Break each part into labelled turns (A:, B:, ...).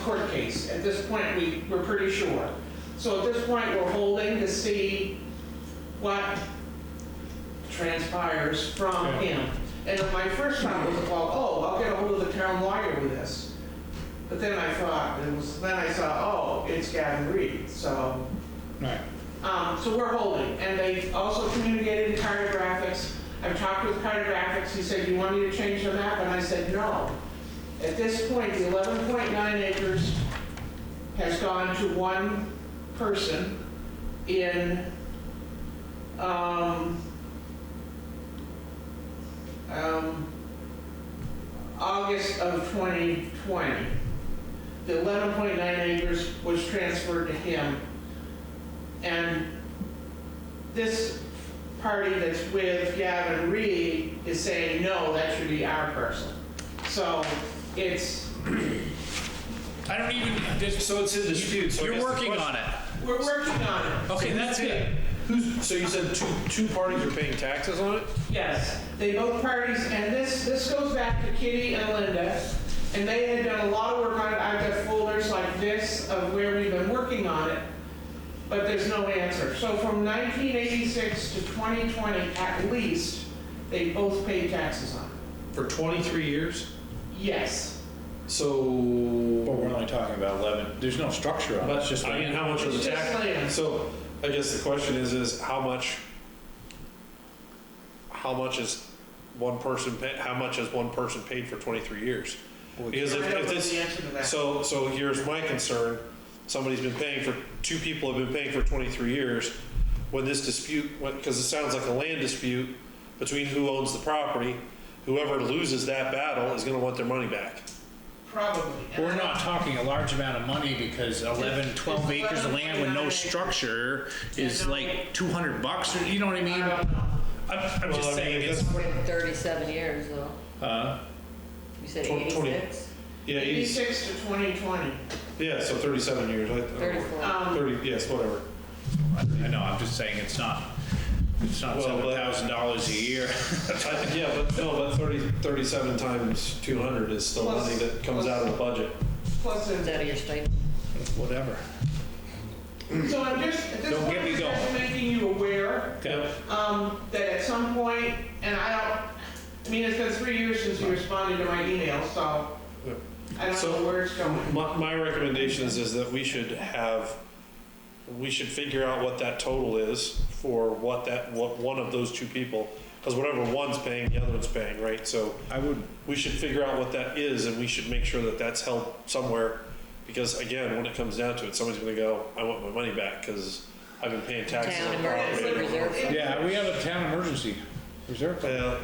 A: court case. At this point, we, we're pretty sure. So at this point, we're holding to see what transpires from
B: Yeah.
A: him. And my first thought was, well, oh, I'll get a hold of the town lawyer with this. But then I thought, it was, then I saw, oh, it's Gavin Reed, so.
B: Right.
A: Um, so we're holding, and they also communicated to cartographics. I've talked with cartographics, he said, you want me to change the map? And I said, no. At this point, the eleven point nine acres has gone to one person in, um, um, August of twenty twenty. The eleven point nine acres was transferred to him and this party that's with Gavin Reed is saying, no, that should be our person. So it's,
B: I don't even, this-
C: So it's in dispute, so I
B: you're
C: guess the
B: working
C: question-
B: on it.
A: we're working on it.
C: Okay, that's it. Who's, so you said two, two parties are paying taxes on it?
A: Yes, they both parties, and this, this goes back to Kitty and Linda, and they had done a lot of work on it. I've got folders like this of where we've been working on it, but there's no answer. So from 1986 to 2020, at least, they both paid taxes on it.
C: For 23 years?
A: Yes.
C: So.
B: Well, we're only talking about 11, there's no structure on it, it's
C: But,
B: just
C: I mean,
B: like,
C: how much are the
A: It's just land.
C: tax? So I guess the question is, is how much, how much is one person, pa- how much has one person paid for 23 years? Because
A: I
C: if
A: don't
C: if
A: know
C: this,
A: the answer to that.
C: So, so here's my concern. Somebody's been paying for, two people have been paying for 23 years. When this dispute, because it sounds like a land dispute between who owns the property, whoever loses that battle is going to want their money back.
A: Probably. And
B: we're
A: I-
B: not talking a large amount of money because 11, 12
A: It's
B: acres of
A: 11,
B: land with no
A: 29.
B: structure is
A: no.
B: like 200 bucks, or, you know what I mean?
A: I don't know.
B: I'm, I'm
C: Well, I
B: just
C: mean,
B: saying,
C: that's-
B: it's,
D: Wait, 37 years, though.
B: uh,
D: You said
C: Twen- twenty.
D: 86?
C: Yeah, he's-
A: Eighty-six to twenty twenty.
C: yeah, so 37 years. I- I-
D: 34.
A: Um,
C: 30, yes, whatever.
B: I I know, I'm just saying, it's not, it's not
C: Well, but-
B: $7,000 a year.
C: I- Yeah, but no, but 30, 37 times 200 is still
A: Plus-
C: money that comes out of the budget.
A: Plus,
D: Is
A: a-
D: that your stipend?
B: Whatever.
A: so I'm just, at this
B: Don't
A: point,
B: get me
A: I'm just
B: going.
A: making you aware,
C: Okay.
A: um, that at some point, and I don't, I mean, it's been three years since you responded to my email, so
C: Yep.
A: I don't
C: So-
A: know where it's going.
C: My, my recommendation is, is that we should have, we should figure out what that total is for what that, what one of those two people, because whatever one's paying, the other one's paying, right? So
B: I would,
C: we should figure out what that is and we should make sure that that's held somewhere. Because again, when it comes down to it, somebody's gonna go, I want my money back because I've been paying taxes
D: Town
C: on property.
D: emergency reserve fund.
B: yeah, we have a town emergency reserve. fund.
C: Yeah,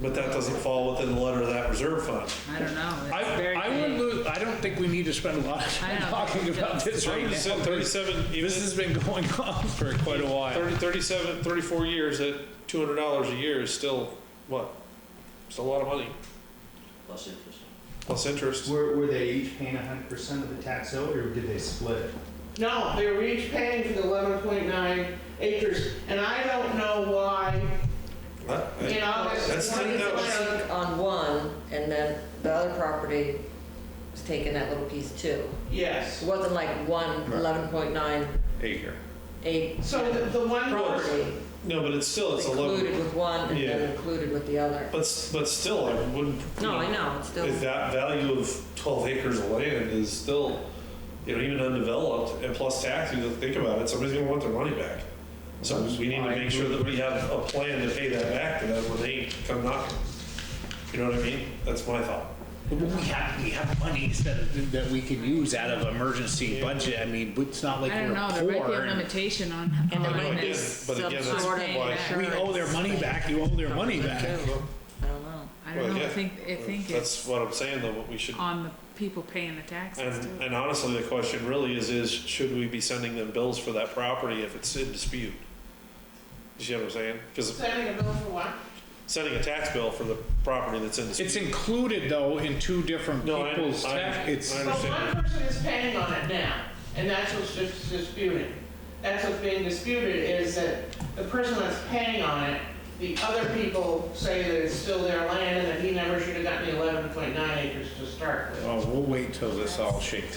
C: but that doesn't fall within the letter of that reserve fund.
E: I don't know. It's
B: I,
E: very
B: I wouldn't
E: vague.
B: lose, I don't think we need to spend a lot of time
E: I know.
B: talking about this right now.
C: Thirty-seven, thirty-seven, even
B: This has been going on for quite a while.
C: 30, 37, 34 years at $200 a year is still, what? It's a lot of money,
F: Plus interest.
C: plus interest.
G: Were, were they each paying hundred percent of the tax owed, or did they split it?
A: No, they were each paying for the eleven point nine acres, and I don't know why, in August.
C: That's
A: one
C: not-
A: of
C: that
A: the-
C: was-
D: On one, and then the other property was taking that little piece too.
A: Yes.
D: It wasn't like one
B: Right.
D: 11.98
B: Acre.
A: So the, the one.
D: property
C: No, but it's still, it's 11,
D: included with one and
C: Yeah.
D: then included with the other.
C: but, s- but still, I wouldn't. you
D: No, I know, it's still,
C: If that value of 12 acres of land is still, you know, even undeveloped and plus tax, you think about it, somebody's gonna want their money back. So we need to make sure that we have a plan to pay that back to them when they come knocking. You know what I mean? That's my thought.
B: We have, we have monies that, that we can use out of emergency budget. I mean, it's not like
E: I don't
B: we're
E: know, there might be
B: poor.
E: a
B: and
E: limitation on how
D: And there
E: long
D: might
C: be
E: they
C: some
E: subsidize
C: sort
D: of
E: paying
D: like-
E: back.
B: We owe their money back, you owe their money back.
D: I don't know.
E: I
C: Well,
E: don't know, I
C: yeah. uh,
E: think, I think
C: That's
E: it's
C: what I'm saying, though, what we should,
E: on the people paying the taxes
C: and,
E: too.
C: and honestly, the question really is, is should we be sending them bills for that property if it's in dispute? You see what I'm saying? Because
A: Sending a bill for what?
C: sending a tax bill for the property that's in
B: It's
C: dispute.
B: included though in two different
C: No, I-
B: people's
C: I-
B: tax, it's,
C: I
A: So
C: understand.
A: one person is paying on it now, and that's what's dis- disputed. That's what's being disputed, is that the person that's paying on it, the other people say that it's still their land, and that he never should have gotten the eleven point nine acres to start with.
B: oh, we'll wait till this all shakes